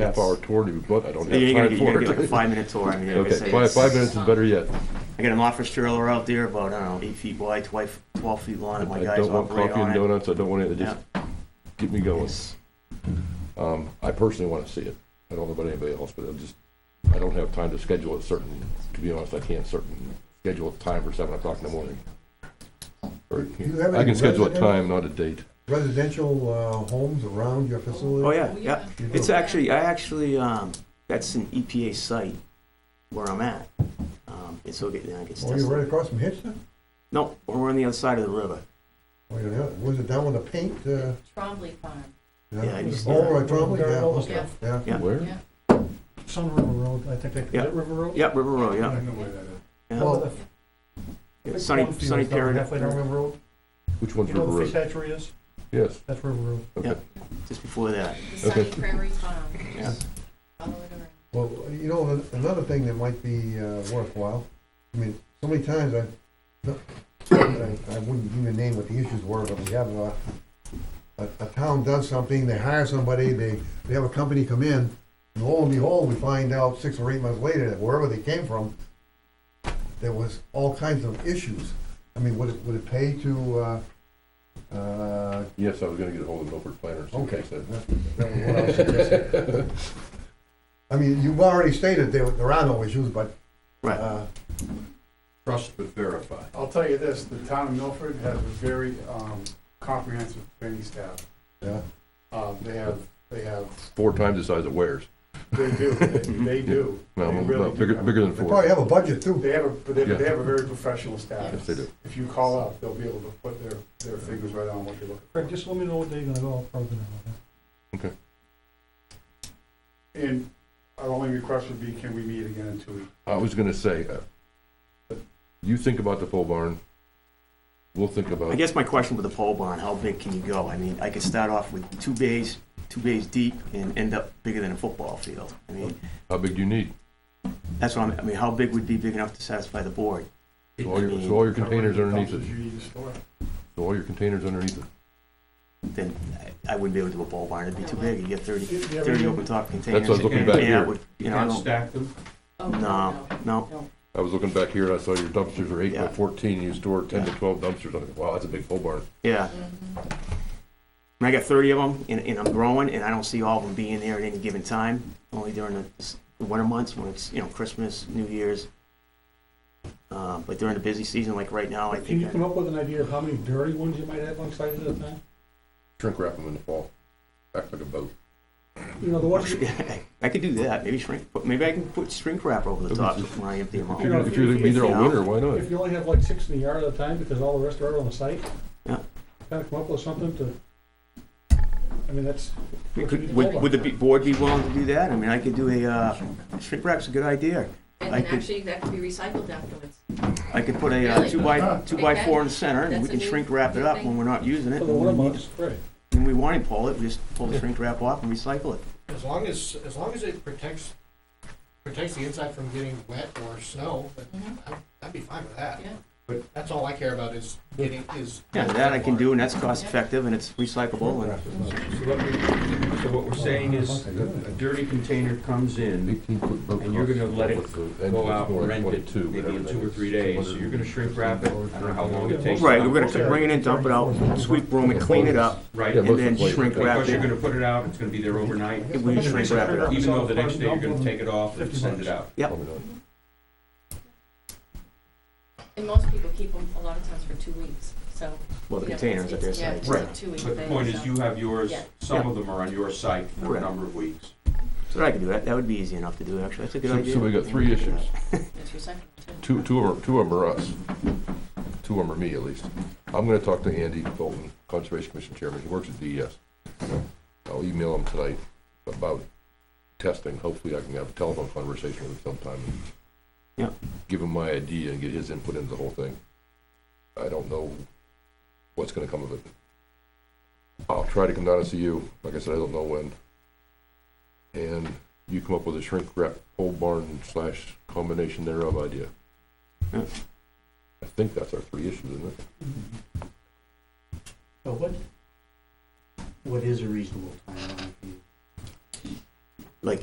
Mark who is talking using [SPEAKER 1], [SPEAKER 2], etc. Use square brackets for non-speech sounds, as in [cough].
[SPEAKER 1] half
[SPEAKER 2] Yes.
[SPEAKER 1] hour tour to be booked. I don't
[SPEAKER 2] Yeah,
[SPEAKER 1] have
[SPEAKER 2] you're
[SPEAKER 1] time
[SPEAKER 2] gonna, you're
[SPEAKER 1] for
[SPEAKER 2] gonna get like a
[SPEAKER 1] it.
[SPEAKER 2] five minute tour. I mean, like I
[SPEAKER 1] Okay,
[SPEAKER 2] say,
[SPEAKER 1] five,
[SPEAKER 2] it's-
[SPEAKER 1] five minutes is better yet.
[SPEAKER 2] I got an office trailer out there about, I don't know, eight feet wide, twelve, twelve feet long, and my
[SPEAKER 1] I
[SPEAKER 2] guys
[SPEAKER 1] don't want
[SPEAKER 2] operate
[SPEAKER 1] coffee and
[SPEAKER 2] on it.
[SPEAKER 1] donuts. I don't want it. Just get me going.
[SPEAKER 2] It's-
[SPEAKER 1] Um, I personally want to see it. I don't know about anybody else, but I'm just, I don't have time to schedule a certain, to be honest, I can't certain, schedule a time for seven o'clock in the morning. Or,
[SPEAKER 3] Do you have
[SPEAKER 1] I
[SPEAKER 3] any
[SPEAKER 1] can schedule a
[SPEAKER 3] resident-
[SPEAKER 1] time, not a date.
[SPEAKER 3] Residential uh, homes around your facility?
[SPEAKER 2] Oh, yeah, yeah.
[SPEAKER 3] You do?
[SPEAKER 2] It's actually, I actually, um, that's an EPA site where I'm at. Um, it's so, yeah, it gets
[SPEAKER 3] Oh, you're
[SPEAKER 2] tested.
[SPEAKER 3] right across from Hitchcock?
[SPEAKER 2] No, we're on the other side of the river.
[SPEAKER 3] Oh, you're not- was it down on the paint? uh,
[SPEAKER 4] Trombley Farm,
[SPEAKER 2] Yeah, I used to-
[SPEAKER 3] Oh, right, Trombley,
[SPEAKER 5] Darren Olin.
[SPEAKER 3] yeah,
[SPEAKER 4] yes,
[SPEAKER 3] yeah.
[SPEAKER 2] Yeah.
[SPEAKER 1] Where?
[SPEAKER 4] yeah.
[SPEAKER 5] Sun River Road, I think they, is
[SPEAKER 2] Yeah.
[SPEAKER 5] it River Road?
[SPEAKER 2] Yeah, River Road,
[SPEAKER 5] I
[SPEAKER 2] yeah.
[SPEAKER 5] don't know where that is.
[SPEAKER 2] yeah.
[SPEAKER 3] Well,
[SPEAKER 2] Yeah, Sunny,
[SPEAKER 5] Cornfield's
[SPEAKER 2] Sunny
[SPEAKER 5] down Halfway down
[SPEAKER 2] Period,
[SPEAKER 5] River Road,
[SPEAKER 1] Which one's
[SPEAKER 5] you
[SPEAKER 1] River
[SPEAKER 5] know where the fish
[SPEAKER 1] Road?
[SPEAKER 5] hatchery is?
[SPEAKER 1] Yes,
[SPEAKER 5] That's River Road.
[SPEAKER 1] okay.
[SPEAKER 2] just before that,
[SPEAKER 4] The Sunny
[SPEAKER 1] Okay.
[SPEAKER 4] Prairie Farm,
[SPEAKER 2] yeah.
[SPEAKER 4] follow it around.
[SPEAKER 3] well, you know, an- another thing that might be uh, worthwhile, I mean, so many times I, no, I I wouldn't even name what the issues were, but we have a, a, a town does something, they hire somebody, they, they have a company come in, and lo and behold, we find out six or eight months later that wherever they came from, there was all kinds of issues. I mean, would it, would it pay to, uh, uh,
[SPEAKER 1] Yes, I was gonna get ahold of Milford Planners.
[SPEAKER 3] Okay.
[SPEAKER 1] Said-
[SPEAKER 3] That was what I was suggesting. [laughs] I mean, you've already stated there, there are no issues, but,
[SPEAKER 2] Right,
[SPEAKER 3] uh,
[SPEAKER 1] Trust but verify.
[SPEAKER 6] I'll tell you this, the town of Milford has a very um, comprehensive training staff.
[SPEAKER 3] yeah.
[SPEAKER 6] Um, They have, they have,
[SPEAKER 1] Four times the size of Wares.
[SPEAKER 6] they do, they- they do.
[SPEAKER 1] No,
[SPEAKER 6] They
[SPEAKER 1] no,
[SPEAKER 6] really do.
[SPEAKER 1] bigger, bigger than
[SPEAKER 3] They
[SPEAKER 1] four.
[SPEAKER 3] probably have a budget too.
[SPEAKER 6] They have, a- but they
[SPEAKER 1] Yeah.
[SPEAKER 6] they have a very professional staff.
[SPEAKER 1] Yes, they do.
[SPEAKER 6] If you call up, they'll be able to put their, their fingers right on what you're looking
[SPEAKER 5] Craig, just let me know what day you're gonna go, I'll probably know.
[SPEAKER 6] for. And our only request would be, can we meet again in two weeks?
[SPEAKER 1] I was gonna say, uh, you think about the pole barn. We'll think
[SPEAKER 2] I
[SPEAKER 1] about,
[SPEAKER 2] guess my question with the pole barn, how big can you go? I mean, I could start off with two bays, two bays deep, and end up bigger than a football field. I mean,
[SPEAKER 1] how big do you need?
[SPEAKER 2] That's what I'm, I mean, how big would be big enough to satisfy the board?
[SPEAKER 1] So all your, so all your containers underneath it.
[SPEAKER 6] You need to store it.
[SPEAKER 1] So all your containers underneath it.
[SPEAKER 2] Then I I wouldn't be able to do a pole barn, it'd be too big, you get thirty,
[SPEAKER 6] You- you have
[SPEAKER 2] thirty
[SPEAKER 6] any-
[SPEAKER 2] open top
[SPEAKER 1] That's what
[SPEAKER 2] containers.
[SPEAKER 1] I was looking back
[SPEAKER 2] and that
[SPEAKER 1] here.
[SPEAKER 2] would- You know, I don't,
[SPEAKER 7] stack them?
[SPEAKER 4] Oh,
[SPEAKER 2] no, no,
[SPEAKER 1] I was looking back here and I saw your dumpsters are eight by
[SPEAKER 2] Yeah.
[SPEAKER 1] fourteen, and you store ten to
[SPEAKER 2] Yeah.
[SPEAKER 1] twelve dumpsters. I think, wow, that's a big pole barn.
[SPEAKER 2] yeah.
[SPEAKER 4] Mhm.
[SPEAKER 2] And I got thirty of them, and, and I'm growing, and I don't see all of them being there at any given time, only during the s- the winter months when it's, you know, Christmas, New Year's. Uh, but during the busy season, like right now, I
[SPEAKER 5] Can you
[SPEAKER 2] think,
[SPEAKER 5] come
[SPEAKER 2] I-
[SPEAKER 5] up with an idea of how many dirty ones you might have on site at a time?
[SPEAKER 1] Shrink wrap them in the fall. Act like a boat.
[SPEAKER 5] You know, the ones, you
[SPEAKER 2] [laughs] I could do that, maybe shrink, but maybe I can put shrink wrap over the top when I empty them
[SPEAKER 1] If
[SPEAKER 2] out.
[SPEAKER 1] you're, gonna- if you're gonna be there all winter, why not?
[SPEAKER 5] if you only have like six in the yard at a time, because all the rest are out on the site?
[SPEAKER 2] Yeah.
[SPEAKER 5] Kinda come up with something to, I mean, that's,
[SPEAKER 2] We could- Would, would the be- board be willing to do that? I mean, I could do a, uh, shrink wrap's a good idea.
[SPEAKER 4] And
[SPEAKER 2] I
[SPEAKER 4] then
[SPEAKER 2] could-
[SPEAKER 4] actually, that could be recycled afterwards.
[SPEAKER 2] I could put a uh, two by, two by four in the center, and we
[SPEAKER 4] That's a
[SPEAKER 2] can
[SPEAKER 4] new-
[SPEAKER 2] shrink wrap it up when we're not using it.
[SPEAKER 5] for
[SPEAKER 2] And
[SPEAKER 5] the winter
[SPEAKER 2] when we need
[SPEAKER 5] months, right.
[SPEAKER 2] to- when we want to pull it, we just pull the shrink wrap off and recycle it.
[SPEAKER 8] As long as, as long as it protects, protects the inside from getting wet or snow, but
[SPEAKER 4] Mhm.
[SPEAKER 8] I'd, I'd be fine with that.
[SPEAKER 4] Yeah.
[SPEAKER 8] But that's all I care about is getting, is.
[SPEAKER 2] Yeah, that I can do, and that's cost effective, and it's recyclable, and
[SPEAKER 7] So what we- so what we're saying is, a dirty container comes in,
[SPEAKER 1] Eighteen foot boat.
[SPEAKER 7] And you're gonna
[SPEAKER 1] costs
[SPEAKER 7] let it
[SPEAKER 1] with the
[SPEAKER 7] go
[SPEAKER 1] engines
[SPEAKER 7] out
[SPEAKER 1] more
[SPEAKER 7] and
[SPEAKER 1] like
[SPEAKER 7] rent it
[SPEAKER 1] 22,
[SPEAKER 7] maybe in
[SPEAKER 1] whatever
[SPEAKER 7] two
[SPEAKER 1] that
[SPEAKER 7] or
[SPEAKER 1] is.
[SPEAKER 7] three days, so you're gonna shrink wrap it, I don't know how long it takes.
[SPEAKER 2] right, we're gonna bring it in, dump it out, sweep room it, clean it up,
[SPEAKER 7] Right,
[SPEAKER 1] Yeah,
[SPEAKER 2] and
[SPEAKER 1] most
[SPEAKER 2] then
[SPEAKER 1] of the
[SPEAKER 2] shrink
[SPEAKER 1] places-
[SPEAKER 2] wrap
[SPEAKER 7] because you're
[SPEAKER 2] it.
[SPEAKER 7] gonna put it out, it's gonna be there overnight,
[SPEAKER 2] We shrink wrap it up.
[SPEAKER 7] even though the next day you're gonna take it off and send it out.
[SPEAKER 1] Probably not.
[SPEAKER 4] And most people keep them a lot of times for two weeks, so.
[SPEAKER 2] Well, the
[SPEAKER 4] you know,
[SPEAKER 2] containers at
[SPEAKER 4] it's-
[SPEAKER 2] their
[SPEAKER 4] it's- yeah,
[SPEAKER 2] sites.
[SPEAKER 4] it's a
[SPEAKER 2] Right.
[SPEAKER 4] two-week
[SPEAKER 7] But the
[SPEAKER 4] thing,
[SPEAKER 7] point
[SPEAKER 4] so-
[SPEAKER 7] is, you have yours,
[SPEAKER 4] Yeah.
[SPEAKER 7] some of them are on your site for a
[SPEAKER 2] Correct.
[SPEAKER 7] number of weeks.
[SPEAKER 2] So I could do that, that would be easy enough to do, actually, that's a good
[SPEAKER 1] So,
[SPEAKER 2] idea.
[SPEAKER 1] so we got three issues.
[SPEAKER 4] It's recyclable,
[SPEAKER 1] Two,
[SPEAKER 4] too.
[SPEAKER 1] two of them, two of 'em are us. Two of them are me, at least. I'm gonna talk to Andy Bolton, Conservation Commission Chairman, he works at DES. I'll email him tonight about testing, hopefully I can have a telephone conversation with him sometime.
[SPEAKER 2] Yeah.
[SPEAKER 1] Give him my idea and get his input into the whole thing. I don't know what's gonna come of it. I'll try to come down and see you, like I said, I don't know when. And you come up with a shrink wrap pole barn slash combination thereof idea.
[SPEAKER 2] Yeah.
[SPEAKER 1] I think that's our three issues, isn't it?
[SPEAKER 9] But what, what is a reasonable timeline for you?
[SPEAKER 2] like